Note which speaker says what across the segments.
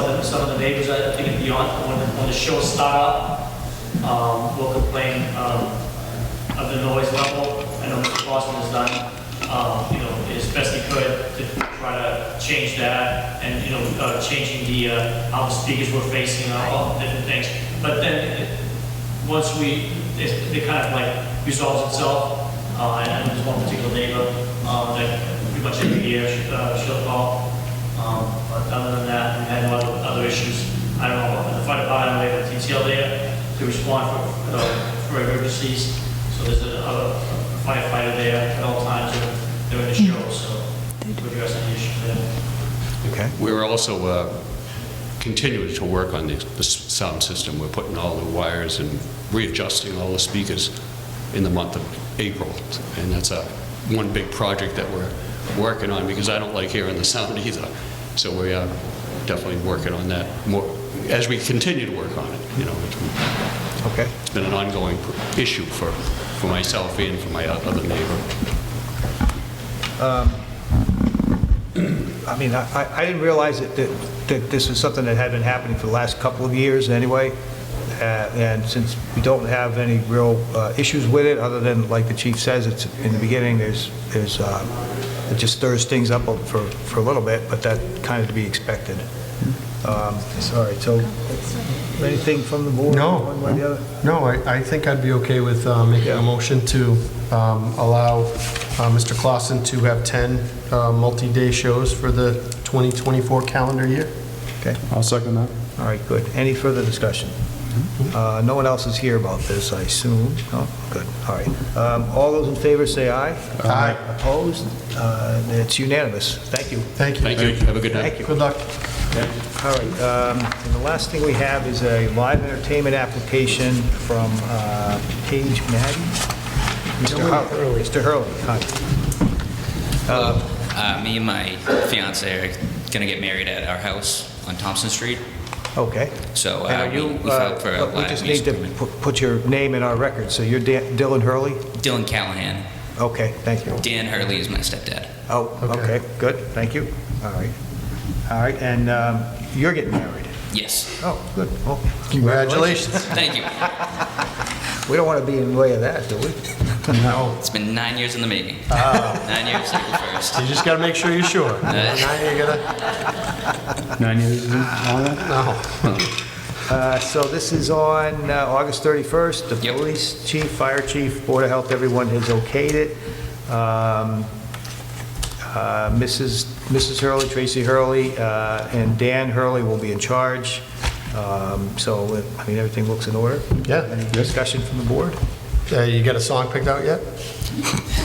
Speaker 1: the, uh, some of the neighbors, I think and beyond, when, when the show starts, um, will complain, um, of the noise level. I know Mr. Boston has done, um, you know, as best he could to try to change that and, you know, uh, changing the, uh, how the speakers were facing, uh, all the different things. But then, it- once we, it, it kind of like resolves itself. Uh, and there's one particular neighbor, um, that pretty much every year, she- uh, she'll call. Um, but other than that, we had a lot of other issues. I don't know, the fire department, we have a detail there to respond for, uh, for emergencies. So there's a a firefighter there at all times during the show, so we're addressing the issue there.
Speaker 2: Okay.
Speaker 3: We're also uh, continuing to work on the the s- sound system. We're putting all the wires and readjusting all the speakers in the month of April. And that's a, one big project that we're working on, because I don't like hearing the sound either. So we are definitely working on that more, as we continue to work on it, you know. it's-
Speaker 2: Okay.
Speaker 3: It's been an ongoing pr- issue for, for myself and for my o- other neighbor.
Speaker 2: I mean, I, I- I didn't realize that, that- that this is something that had been happening for the last couple of years anyway. Uh, And since we don't have any real uh, issues with it, other than, like the chief says, it's, in the beginning, there's, there's, uh, it just stirs things up for, for a little bit, but that kind of to be expected. Um, Sorry, so, anything from the board?
Speaker 4: No.
Speaker 2: One way or the other?
Speaker 4: No, I, I think I'd be okay with uh, making
Speaker 2: Yeah.
Speaker 4: a motion to um, allow uh, Mr. Clausen to have 10 uh, multi-day shows for the 2024 calendar year.
Speaker 2: Okay.
Speaker 5: I'll second that.
Speaker 2: All right, good. Any further discussion? Uh, No one else is here about this, I assume? No? Good, all right. Um, All those in favor say aye.
Speaker 4: Aye.
Speaker 2: Opposed? Uh, It's unanimous. Thank you.
Speaker 4: Thank you.
Speaker 3: Thank you. Have a good night.
Speaker 2: Thank you.
Speaker 4: Good luck.
Speaker 2: All right, um, and the last thing we have is a live entertainment application from uh, Paige Madden. Mr. Hurley. Mr. Hurley, hi.
Speaker 6: Uh, me and my fiance are gonna get married at our house on Thompson Street.
Speaker 2: Okay.
Speaker 6: So, uh,
Speaker 2: And are
Speaker 6: we-
Speaker 2: you,
Speaker 6: we filed
Speaker 2: uh,
Speaker 6: for a
Speaker 2: look, We
Speaker 6: live
Speaker 2: just need
Speaker 6: music
Speaker 2: to
Speaker 6: permit.
Speaker 2: pu- put your name in our record, so you're Dan- Dylan Hurley?
Speaker 6: Dylan Callahan,
Speaker 2: Okay, thank you.
Speaker 6: Dan Hurley is my stepdad.
Speaker 2: Oh,
Speaker 4: Okay.
Speaker 2: okay, good, thank you. All right. All right, and um, you're getting married?
Speaker 6: Yes,
Speaker 2: Oh, good, well.
Speaker 4: Congratulations.
Speaker 6: thank you.
Speaker 2: We don't want to be in the way of that, do we?
Speaker 4: No,
Speaker 6: It's been nine years in the making.
Speaker 2: Ah.
Speaker 6: Nine years, April first.
Speaker 4: you just got to make sure you're sure. Now you're gonna,
Speaker 5: Nine years is on that?
Speaker 4: no.
Speaker 2: Uh, So this is on uh, August 31st. The
Speaker 6: Yep.
Speaker 2: police chief, fire chief, Board of Health, everyone has okayed it. Um, uh, Mrs. Mrs. Hurley, Tracy Hurley, uh, and Dan Hurley will be in charge. Um, So, I mean, everything looks in order.
Speaker 4: Yeah.
Speaker 2: Any discussion from the board?
Speaker 4: Uh, You got a song picked out yet?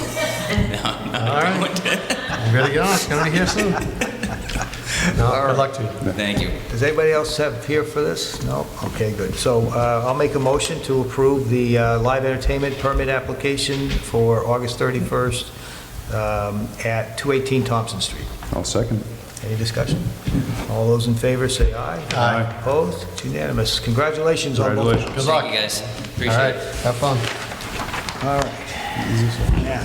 Speaker 4: No, All right. You better get on, it's going to be here soon. No, good luck to you.
Speaker 6: Thank you.
Speaker 2: Does anybody else have here for this? No? Okay, good. So uh, I'll make a motion to approve the uh, live entertainment permit application for August 31st um, at 218 Thompson Street.
Speaker 5: I'll second.
Speaker 2: Any discussion? All those in favor, say aye. Aye. Opposed? It's unanimous. Congratulations on both.
Speaker 5: Congratulations.
Speaker 4: Good luck.
Speaker 6: Thank you, guys.
Speaker 4: All
Speaker 6: Appreciate
Speaker 4: right,
Speaker 6: it.
Speaker 4: have fun.
Speaker 2: All right. Now,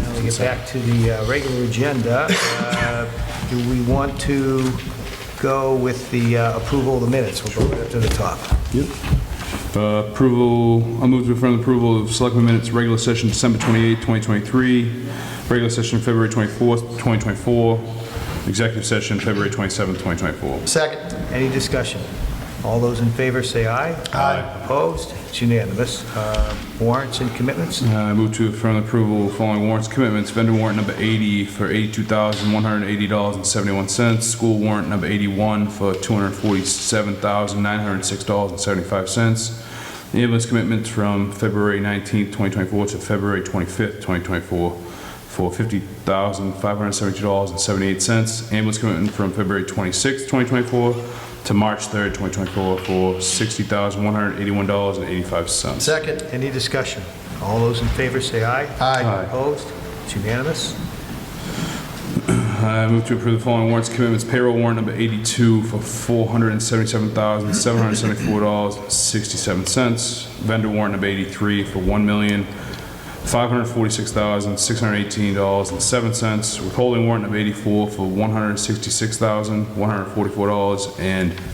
Speaker 2: now we get back to the uh, regular agenda. Uh, Do we want to go with the uh, approval of the minutes? We'll go right up to the top.
Speaker 5: Yep. Uh, Approval, I'll move to affirm the approval of Selectmen Minutes, regular session December 28, 2023, regular session February 24, 2024, executive session February 27, 2024.
Speaker 4: Second.
Speaker 2: Any discussion? All those in favor say aye.
Speaker 4: Aye.
Speaker 2: Opposed? It's unanimous. Uh, Warrants and commitments?
Speaker 5: Uh, I move to affirm the approval of following warrants commitments. Vendor warrant number 80 for $82,180.71. School warrant number 81 for $247,906.75. The ambulance commitment from February 19th, 2024 to February 25th, 2024 for $50,572.78. Ambulance commitment from February 26th, 2024 to March 3rd, 2024 for $60,181.85.
Speaker 4: Second.
Speaker 2: Any discussion? All those in favor say aye.
Speaker 4: Aye.
Speaker 2: Opposed? It's unanimous.
Speaker 5: I move to approve the following warrants commitments. Payroll warrant number 82 for $477,774.67. Vendor warrant number 83 for $1,546,618.07. Withholding warrant number 84 for $166,144.00. And